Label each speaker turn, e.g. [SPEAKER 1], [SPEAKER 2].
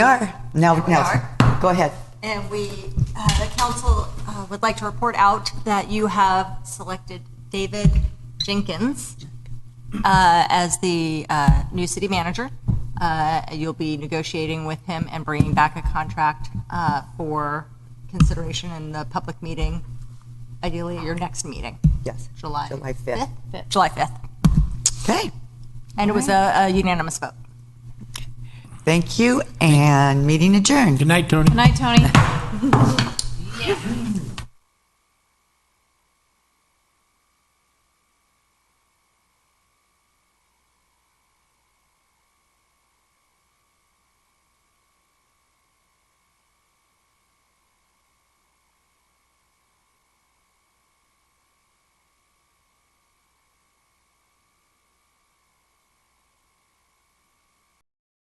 [SPEAKER 1] We are. Now,
[SPEAKER 2] We
[SPEAKER 1] now,
[SPEAKER 2] are.
[SPEAKER 1] go ahead.
[SPEAKER 2] And we, uh, the council uh, would like to report out that you have selected David Jenkins uh, as the uh, new city manager. Uh, You'll be negotiating with him and bringing back a contract uh, for consideration in the public meeting, ideally at your next meeting,
[SPEAKER 1] Yes.
[SPEAKER 2] July.
[SPEAKER 1] July 5th.
[SPEAKER 2] July 5th.
[SPEAKER 1] Okay,
[SPEAKER 2] And it was a a unanimous vote.
[SPEAKER 1] thank you, and meeting adjourned.
[SPEAKER 3] Good night, Tony.
[SPEAKER 4] Good night, Tony.